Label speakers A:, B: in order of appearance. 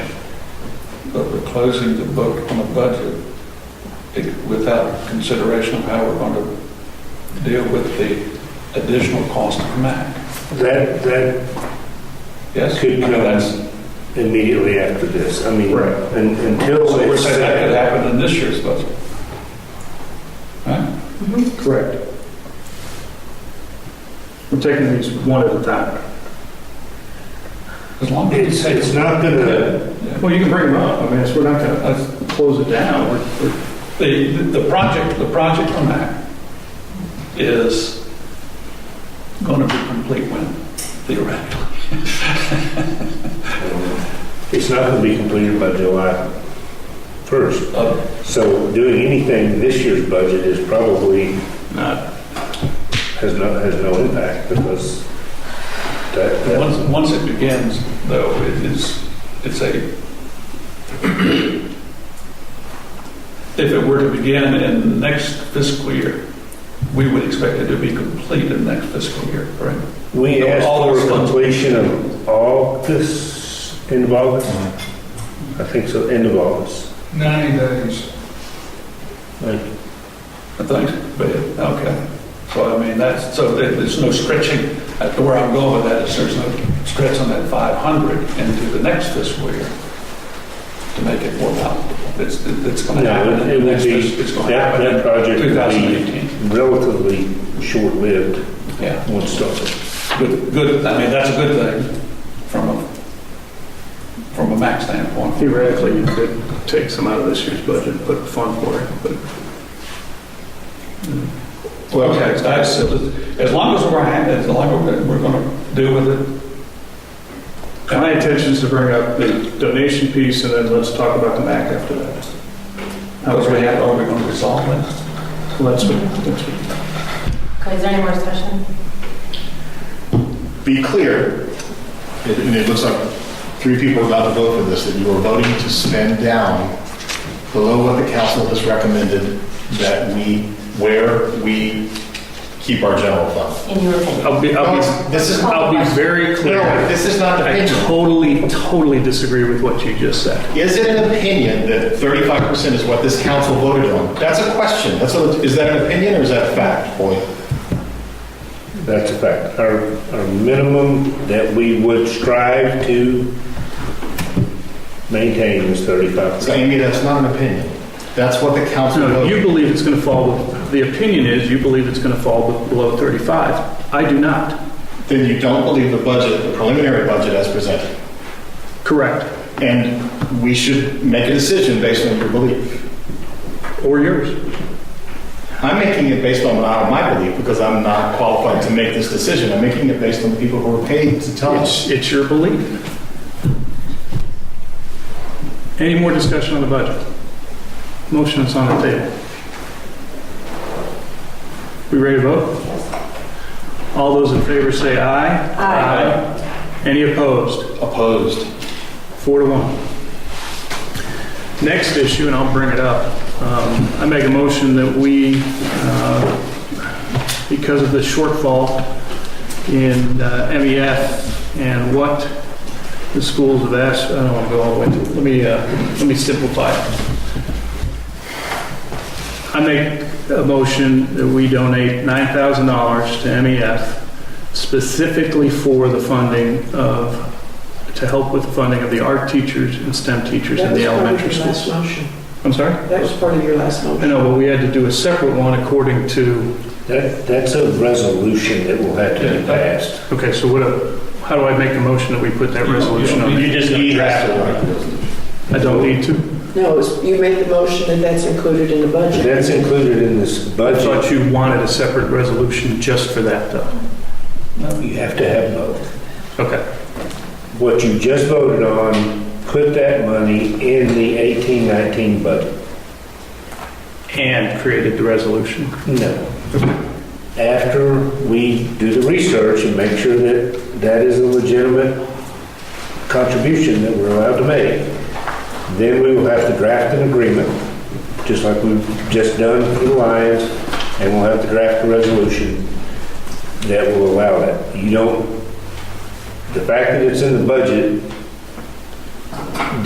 A: closing the book on a budget it- without consideration of how we're going to deal with the additional cost of MAC.
B: That, that
A: Yes?
B: could
A: I mean,
B: come
A: that's-
B: immediately after this. I mean,
A: Right.
B: un- until.
A: So we're
B: it's-
A: saying that could happen in this year's budget. Right?
C: Mm-hmm.
D: Correct. We're taking these one at a time.
A: As long as
B: It's,
A: it's
B: it's not
A: Yeah,
B: gonna,
A: yeah.
D: Well, you can bring them up. I mean, it's, we're not gonna
A: That's-
D: close it down. We're- we're-
A: The, the project, the project on that is going to be complete when theoretically.
B: it's not gonna be completed by July 1st.
A: Uh,
B: So doing anything this year's budget is probably,
A: not-
B: has no, has no impact because that, that-
A: Once, once it begins, though, it is, it's a, if it were to begin in next fiscal year, we would expect it to be complete in next fiscal year, correct?
B: we asked
A: All
B: for
A: those funds.
B: completion of August, end of August? I think so, end of August.
E: 90 days.
A: I think, but, okay. So I mean, that's, so there- there's no stretching, That's where I'm going with that is there's no stretch on that 500 into the next fiscal year to make it more palatable. It's, it's going to
B: No,
A: happen. in
B: it
A: the
B: would
A: next
B: be-
A: fis- It's going to
B: That,
A: happen
B: that
A: in
B: project would
A: 2018.
B: be relatively short-lived
A: Yeah,
B: once started.
A: good, good, I mean, that's a good thing from a, from a max standpoint.
D: Theoretically, you could take some out of this year's budget, and put a fund for it, but uh,
A: Well, okay, that's, as long as we're, ha- as long as we're going to deal with it.
D: my intention is to bring up the donation piece and then let's talk about the MAC after that. How
A: Because
D: we're
A: we
D: gonna-
A: have, are we going to resolve it?
D: Let's, let's-
C: Okay, is there any more discussion?
F: be clear, it- and it looks like three people are about to vote for this, that you are voting to spend down below what the council has recommended that we, where we keep our general fund.
C: In your opinion?
G: I'll be, I'll
F: No,
G: be,
F: This is, no,
G: I'll be very Oh, clear.
F: this is not the
G: I
F: opinion.
G: totally, totally disagree with what you just said.
F: Is it an opinion that 35% is what this council voted on? That's a question. That's a, is that an opinion or is that a fact, Boyd?
B: That's a fact. Our, our minimum that we would strive to maintain is
F: So
B: 35%.
F: Amy, that's not an opinion. That's what the council
G: No, you
F: voted.
G: believe it's going to fall, the opinion is you believe it's going to fall below 35. I do not.
F: Then you don't believe the budget, the preliminary budget as presented.
G: Correct.
F: And we should make a decision based on your belief.
G: Or yours.
F: I'm making it based on my- my belief because I'm not qualified to make this decision. I'm making it based on the people who are paid to tell us.
G: It's, it's your belief. Any more discussion on the budget? Motion is on the table. We ready to vote? All those in favor say aye.
C: Aye.
G: Aye. Any opposed?
F: Opposed.
G: Four to one. Next issue, and I'll bring it up, um, I make a motion that we, uh, because of the shortfall in uh, MEF and what the schools have asked, I don't want to go all the way, through. let me, uh, let me simplify. it. I make a motion that we donate $9,000 to MEF specifically for the funding of to help with the funding of the art teachers and STEM teachers in the elementary schools. I'm sorry?
H: That was part of your last motion.
G: I know, but we had to do a separate one according to,
B: That, that's a resolution that will have to be passed.
G: okay, so what, a- how do I make a motion that we put that resolution on?
B: You just need that.
G: I don't need to.
H: No, it's- you made the motion and that's included in the budget.
B: That's included in this
G: I
B: budget.
G: thought you wanted a separate resolution just for that, though.
B: You have to have both.
G: Okay,
B: What you just voted on, put that money in the 1819 budget.
G: and created the resolution.
B: No. After we do the research and make sure that that is a legitimate contribution that we're allowed to make, then we will have to draft an agreement, just like we've just done for the Lions, and we'll have to draft a resolution that will allow that. You don't, the fact that it's in the budget